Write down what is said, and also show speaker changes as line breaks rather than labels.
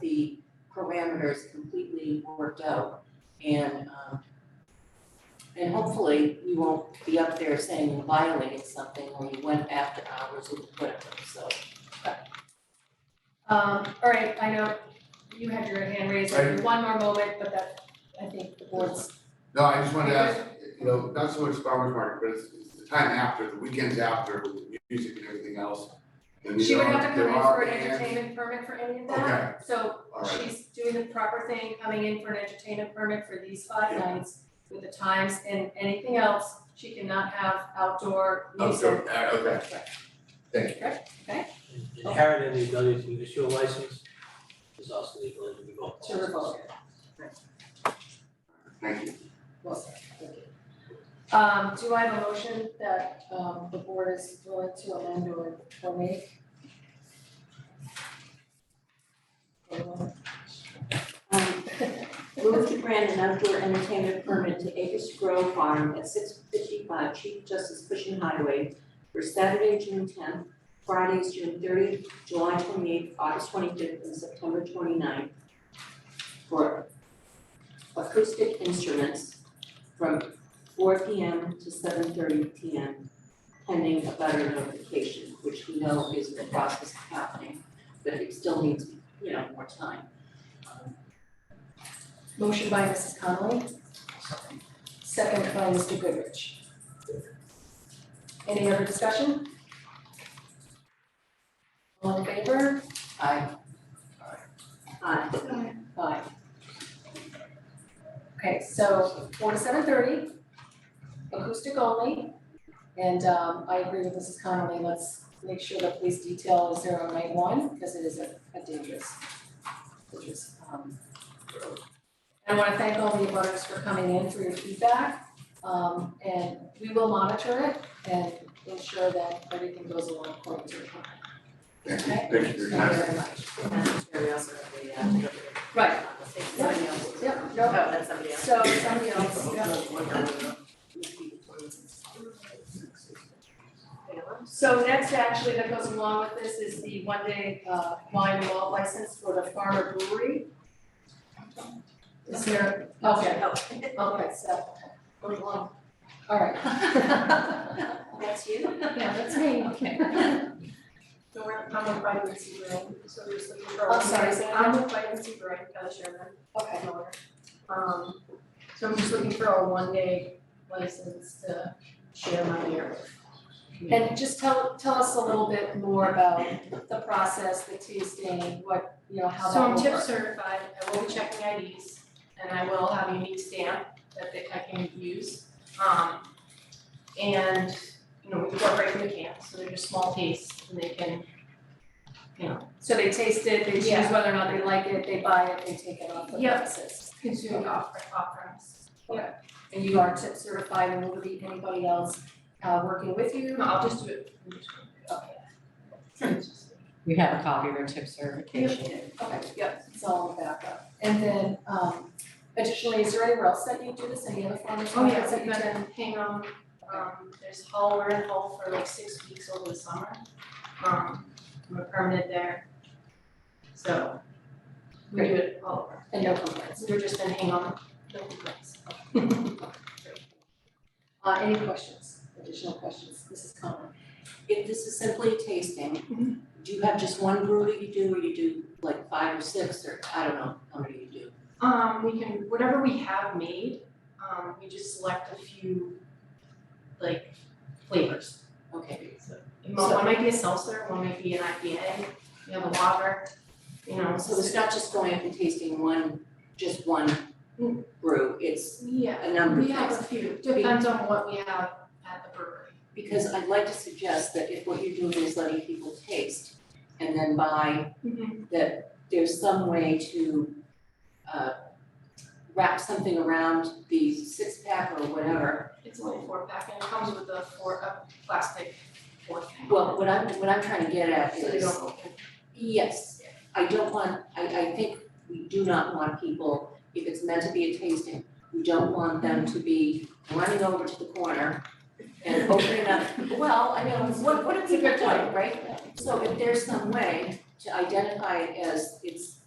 the parameters completely worked out. And, um, and hopefully you won't be up there saying you violated something or you went after hours or whatever, so.
Um, all right, I know you had your hand raised, I have one more moment, but that, I think the board's,
No, I just wanted to ask, you know, not so much farmer's market, but it's, it's the time after, the weekends after, with the music and everything else. And
she
there
would have to
are- there
come in
are
for an
bands.
entertainment permit for any of that. So
All right,
she's doing the proper thing, coming in for an entertainment permit for these five
Yeah.
nights with the times and anything else, she cannot have outdoor
Oh,
music.
so- uh, okay, thank you.
Inherent in the ability to issue a license is also the ability to revoke.
To revoke.
Thank you.
Well said, thank you. Um, do I have a motion that, um, the board is willing to amend or, or make? Anyone?
Um, Move to grant an outdoor entertainment permit to Acres Grove Farm at six fifty-five Chief Justice Cushing Highway for Saturday, June tenth, Fridays, June thirtieth, July twenty-eighth, August twenty-fifth, and September 29th for acoustic instruments from four P M to seven thirty P M, pending a butter notification, which we know is in the process of happening, but it still needs, you know, more time.
Motion by Mrs. Conley. Second by Mr. Goodrich. Any other discussion? All in favor?
I,
Aye.
Aye. Okay, so four to seven thirty, acoustic only. And um, I agree with Mrs. Connolly, let's make sure the police detail is there on night one, because it is a a dangerous, dangerous um road. I wanna thank all the abutters for coming in for your feedback. Um, and we will monitor it and ensure that everything goes along according to the plan.
Thank you,
Okay.
thank you very
Thank you
much.
very much.
we also have the, uh,
Right,
somebody else.
Yep,
Oh,
no,
that's somebody else.
so somebody else, yeah. So next, actually, that goes along with this is the one-day uh, wine and malt license for the Farmer Brewery. Is there, okay, okay, so, hold on. all right.
That's you?
Yeah, that's me.
Okay.
So we're I'm with vitamin Brewing, so there's the referral.
I'm Oh, sorry, so
Oh, I'm with vitamin C Brewing, Kelly Sherman,
Okay,
I'm owner. Um, so I'm just looking for a one day license to share my beer.
and just tell, tell us a little bit more about the process, the tasting, what, you know, how
So
that
I'm
will
tip
work.
certified, I will be checking IDs, and I will have a unique stamp that they- I can use. Um, and, you know, we incorporate them in cans, so they're just small tastes, and they can, you know,
So they taste it, they choose
Yeah.
whether or not they like it, they buy it, they take it off the
Yep.
premises.
consume off, off premise.
And you are tip certified and will there be anybody else uh, working with you?
No, I'll just do it. I'm just gonna do it.
Okay.
We have a copy of our tip certification.
Okay, yep, it's all in the backup. And then, um, additionally, is there anywhere else that you do this, any other farmers
Oh, yeah,
markets that
we've
you
got
do?
a Hingham, um, there's Hull, we're in Hull for like six weeks over the summer. Um, we're permanent there. So, we do it all over.
And no complaints.
We're just in Hingham, no complaints.
Uh, any questions, additional questions? Mrs. Conlon?
if this is simply tasting, do you have just one brew that you do or you do like five or six or I don't know, how many you do?
Um, we can, whatever we have made, um, we just select a few, like, flavors.
Okay, so,
Mo- One might be a seltzer, one might be an IPA, you have a lager, you know,
so
so
it's not just going up and tasting one, just one brew, it's
yeah.
a number of
We
things.
have a few, depends on what we have at the brewery.
Because I'd like to suggest that if what you're doing is letting people taste and then buy,
Mm-hmm.
that there's some way to uh wrap something around the six pack or whatever.
It's only four pack and it comes with a four, a plastic fourth pack.
Well, what I'm, what I'm trying to get at
So they
is,
don't open.
yes, I don't want, I I think we do not want people, if it's meant to be a tasting, we don't want them to be running over to the corner and opening up, well, I mean, what what are
It's a
people
good
doing,
point.
right? So if there's some way to identify it as it's